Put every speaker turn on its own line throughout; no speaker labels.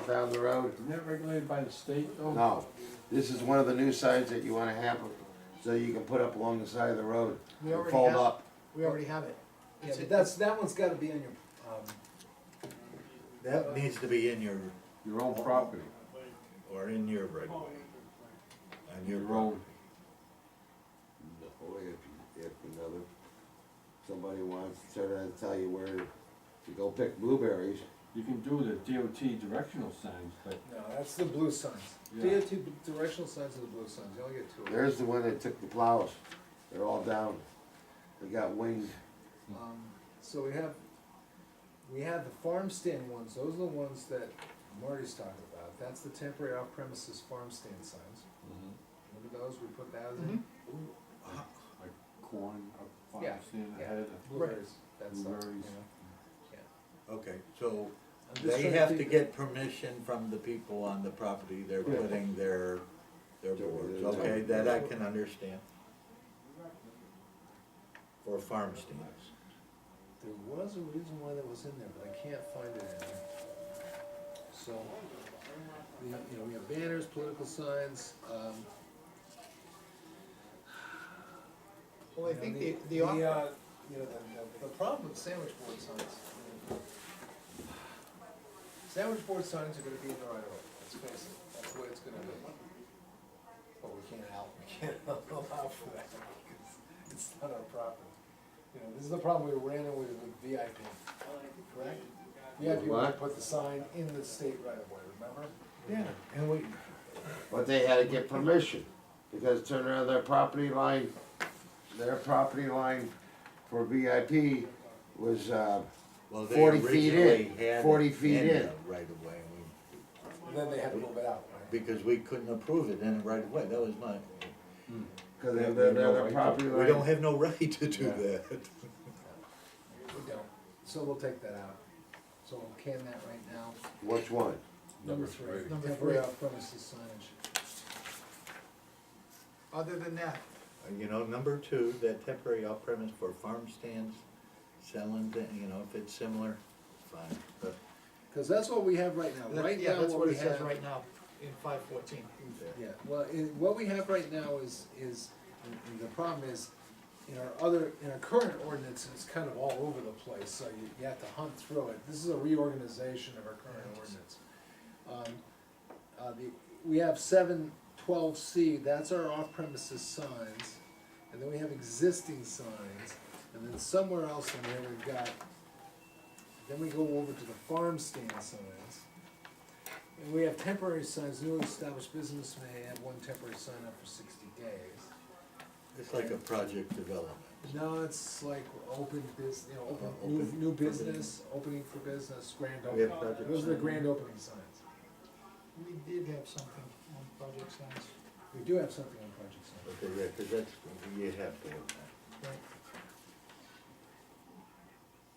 down the road.
Isn't that regulated by the state though?
No, this is one of the new signs that you wanna have, so you can put up along the side of the road.
We
and
already
Fold
have-
up.
We already have it.
Yeah, but that's, that one's gotta be on your, um,
That needs to be in your,
Your own property,
or in your right
Oh,
of way. On your
your own,
road.
Or if, if another, somebody wants to tell you where to go pick blueberries.
you can do the DOT directional signs, but
no, that's the blue signs.
Yeah.
DOT b- directional signs are the blue signs, you only get two of them.
There's the one that took the plows, they're all down, they got winged.
Um, So we have, we have the farm stand ones, those are the ones that Marty's talking about, that's the temporary off premises farm stand signs.
Mm-hmm.
Remember those, we put that in, Mm-hmm.
like corn, up
Yeah,
farm stand
yeah.
ahead
blueberries, that stuff, you
Blueberries.
know.
Okay, so
I'm just
they
trying
have to
think-
get permission from the people on the property they're
Yeah.
putting their, their
Their-
boards,
their-
okay, that I can understand. For farm stands.
There was a reason why that was in there, but I can't find it in here. So, we have, you know, we have banners, political signs, um.
Well, I
you know,
think the, the, off-
uh, You know, the, the, the problem with sandwich board signs. you know, Sandwich board signs are gonna be in the right of way, let's face it, that's the way it's gonna be. But we can't help, we can't allow for that, because it's not our property. You know, this is the problem we ran into with with VIP, correct? VIP would
What?
put the sign in the state right of way, remember?
Yeah, and we,
But they had to get permission, because turn around their property line, their property line for VIP was, uh,
well, they
40 feet in,
originally had
40
it
feet
in
in.
the right of way, and we
And Then they had to move it out, right?
because we couldn't approve it in the right of way, that was my,
cause they're, they're their property
we don't
line.
have no right to do
Yeah.
that. Uh,
We don't, so we'll take that out. So we'll can that right now.
Which one?
Number three.
Number
Temporary
three.
off premises signage.
other than that,
Uh, You know, number two, that temporary off-premise for farm stands, selling, thi- you know, if it's similar, fine, but.
Cause that's what we have right now,
that-
right
yeah,
now
that's
what
what
we
it says
have.
right now in five fourteen.
Yeah, well, it, what we have right now is, is, and- and the problem is, in our other, in our current ordinance, it's kind of all over the place, so you, you have to hunt through it. This is a reorganization of our current ordinance. Um, uh, the, we have seven twelve C, that's our off-premises signs, and then we have existing signs, and then somewhere else in there we've got, then we go over to the farm stand signs. And we have temporary signs, newly established business may have one temporary sign up for sixty days.
It's like a project development.
No, it's like open bus, you know,
Uh,
open, new,
open-
new
opening.
business, opening for business, grand
We have
opening.
project
Those are the
sign.
grand opening signs.
We did have something on project signs.
We do have something on project signs.
Okay, yeah, cause that's, you have to have that.
Right.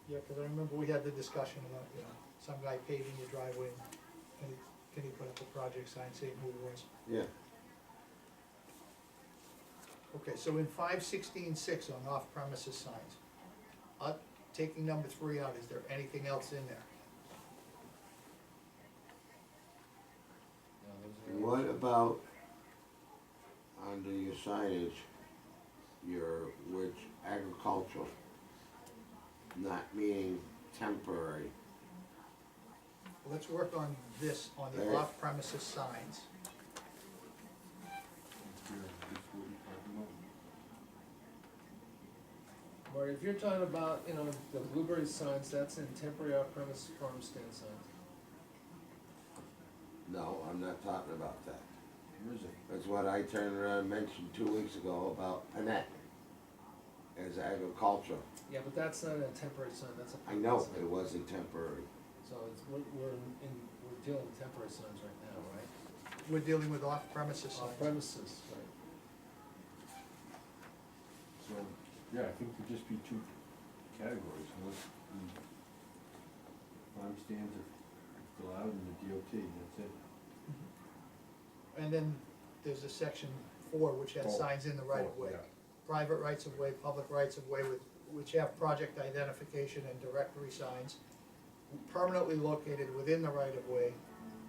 Yeah, cause I remember we had the discussion about, you know, some guy paving your driveway, and can he, can he put up a project sign saying who it was?
Yeah,
Okay, so in five sixteen six on off premises signs, uh, taking number three out, is there anything else in there?
No, those are-
what about under your signage, your, which agricultural? Not meaning temporary,
Let's work on this, on the
There.
off premises signs.
Marty, if you're talking about, you know, the blueberry signs, that's in temporary off-premise farm stand signs.
no, I'm not talking about that.
Where is it?
That's what I turned around and mentioned two weeks ago about Panet as agriculture.
Yeah, but that's not a temporary sign, that's a.
I know
permanent
it
sign.
wasn't temporary.
So it's, we're, we're in, we're dealing with temporary signs right now, right?
We're dealing with off premises
Off
signs.
premises, right?
So, yeah, I think it'd just be two categories, unless, mm, farm stands are allowed in the DOT, that's it.
And then there's a section four, which has
Four.
signs in the right of way.
Yeah.
Private rights of way, public rights of way with, which have project identification and directory signs permanently located within the right of way